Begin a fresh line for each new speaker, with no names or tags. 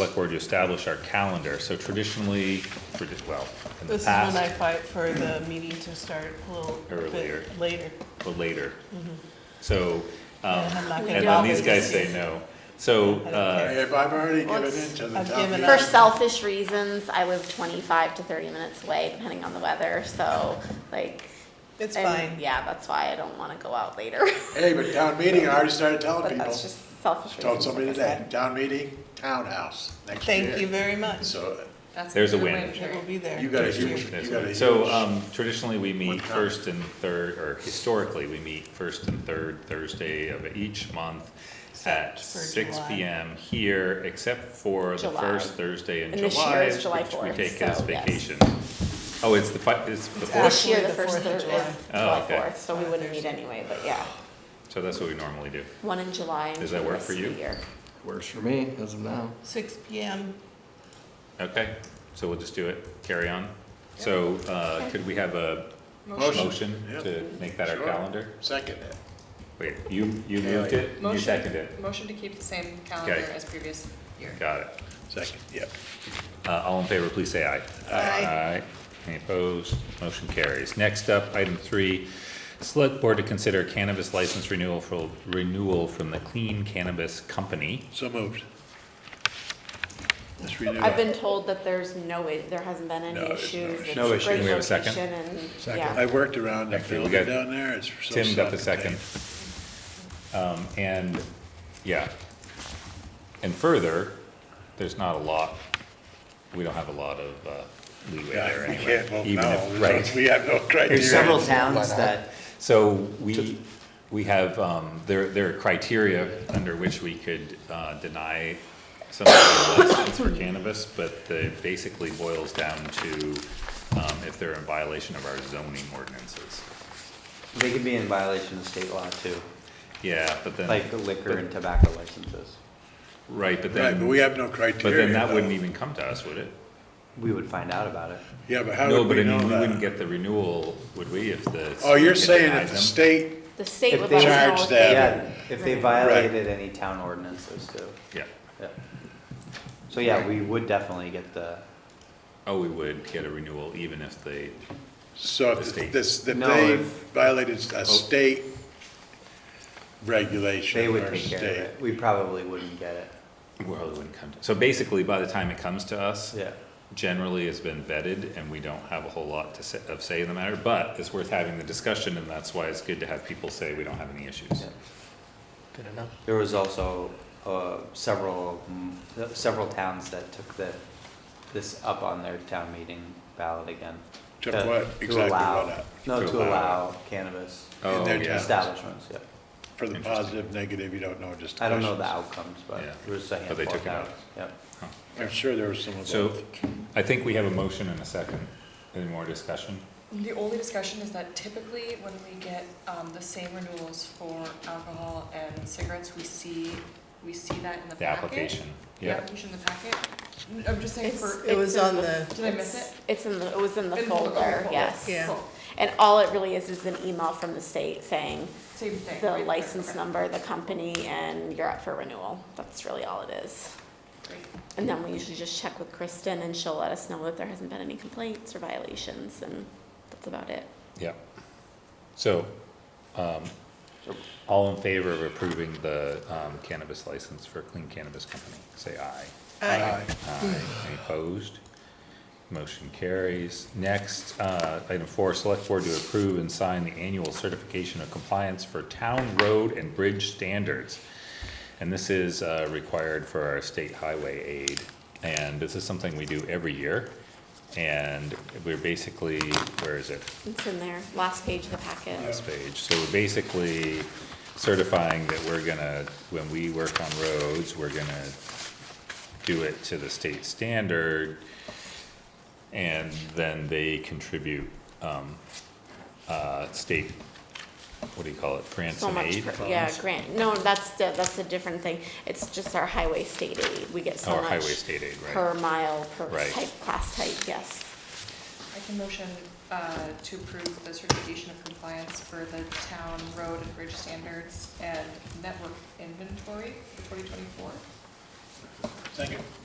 select board to establish our calendar. So traditionally, tradi- well, in the
This is when I
past,
fight for the meeting to start a little
Earlier.
bit later.
but later. So, um,
And Mm-hmm. I'm not gonna
and
do
then
it
these
this
guys
year.
say no. So,
I don't
uh,
If I've already given
Once
in to the
I've
town
given
meeting.
up-
I
For selfish reasons, I live 25 to 30 minutes away, depending on the weather. So, like,
It's
and
fine.
Yeah, that's why I don't want to go out later.
Hey, but town meeting, I already started telling
but
people,
that's just selfish reasons.
told somebody
like I
today,
said.
town meeting, townhouse, next year.
Thank you very much.
So
That's
There's a
good
win.
way to do
It will
it.
be there.
you got a
next year.
huge, you got a
so
huge-
um, traditionally, we meet
What time?
first and third, or historically, we meet first and third Thursday of each month at
Except for
six
July.
P M here, except for the
July.
first Thursday in
And this year
July,
is July
which we
4th,
take as
so yes.
vacation. Oh, it's the fi- it's the
It's
fourth,
This year,
Actually,
the
the
first
4th of
Thursday
July.
is
Oh,
July
okay.
4th, so we wouldn't meet anyway, but yeah.
so that's what we normally do.
One in July and
Does that
two the
work
rest
for
of the
you?
year.
Works for me, as of now.
Six PM,
Okay, so we'll just do it, carry on. So, uh, could we have a
Motion.
motion
Yep.
to make that our
Sure.
calendar?
second it.
Wait, you, you
Yeah,
moved
yeah.
it, you
Motion-
seconded it,
Motion to keep the same calendar
Okay.
as previous year.
got it.
Second, yep.
Uh, all in favor, please say aye.
Aye.
Any opposed? Motion carries. Next up, item three, select board to consider cannabis license renewal for, renewal from the Clean Cannabis Company.
So moved. Let's renew
I've
it.
been told that there's no, i- there hasn't been
No,
any
there's no
issues.
issue.
It's
No issue.
great
Can we have a second?
location and- Yeah,
I worked around the
Actually, we
building
got-
down there, it's so
Tim got the second.
self-contained.
Um, and, yeah. And further, there's not a lot, we don't have a lot of, uh, leeway there
Yeah, we
anyway.
can't vote
even
no,
if-
so
Right.
we have no criteria.
There's several towns that,
So we, we have, um, there, there are criteria under which we could, uh, deny some of the license for cannabis, but it basically boils down to, um, if they're in violation of our zoning ordinances.
they could be in violation of state law too,
Yeah, but then.
like the liquor and tobacco licenses.
Right, but
Right,
then.
but we have no
But
criteria.
then that wouldn't
though.
even come to us, would it?
We would find out about it.
Yeah, but how
No,
would
but
we
I
know
mean, we wouldn't
that?
get the renewal, would we, if the.
Oh, you're
state
saying
denied
if the
them?
state,
the state
If
would
they
let us
charge
know if
them-
they-
Yeah, if they
Right.
violated any town ordinances too,
Yeah,
yeah. So yeah, we would definitely get the,
oh, we would get a renewal even if they,
so
The
if
state.
this, if
No,
they
if- oh.
violated a state regulation
they would
or
take care of
state.
it. We probably wouldn't get it,
well, it wouldn't come to. So basically, by the time it comes to us.
yeah.
generally has been vetted, and we don't have a whole lot to say, of say in the matter, but it's worth having the discussion, and that's why it's good to have people say we don't have any issues.
yeah.
Good enough.
There was also, uh, several, mm, several towns that took the, this up on their town meeting ballot again.
Took
To-
what?
to
Exactly
allow-
what up?
No,
To
to
allow-
allow cannabis
Oh,
their
yeah.
town.
establishments, yeah.
For the
Interesting.
positive, negative, you don't know, just.
I don't know the
questions.
outcomes, but
Yeah.
there was a
But they
handful
took
of
it out.
towns, yeah.
I'm sure there was some of
So,
both.
I think we have a motion and a second. Any more discussion?
The only discussion is that typically when we get um, the same renewals for alcohol and cigarettes, we see, we see that in the packet.
The application,
The
yeah.
application in the packet. N- I'm just saying
It's-
for,
it was
it's-
on the,
did I miss it?
It's in the, it was in the
In the folder,
folder,
folder.
yes.
Yeah.
Cool.
And all it really is, is an email from the state saying
Same thing.
the
right?
license
Okay.
number, the company, and you're up for renewal. That's really all it is.
Great.
And then we usually just check with Kristen and she'll let us know that there hasn't been any complaints or violations and that's about it.
Yeah. So, um, all in favor of approving the um, cannabis license for Clean Cannabis Company, say aye.
I,
Aye. Any opposed? Motion carries. Next, uh, item four, select board to approve and sign the annual certification of compliance for town road and bridge standards. And this is, uh, required for our state highway aid, and this is something we do every year. And we're basically, where is it?
It's in there, last page of the packet.
this page, so we're basically certifying that we're gonna, when we work on roads, we're gonna do it to the state standard, and then they contribute, um, uh, state, what do you call it, grants
So
and
much,
aid?
per- yeah, grant, no, that's, the- that's a different thing. It's just our highway state aid. We get so
Oh, our
much.
highway state aid, right.
Per mile, per
Right.
type, class type, yes.
I can motion uh, to approve the certification of compliance for the town road and bridge standards and network inventory for 2024.
Second.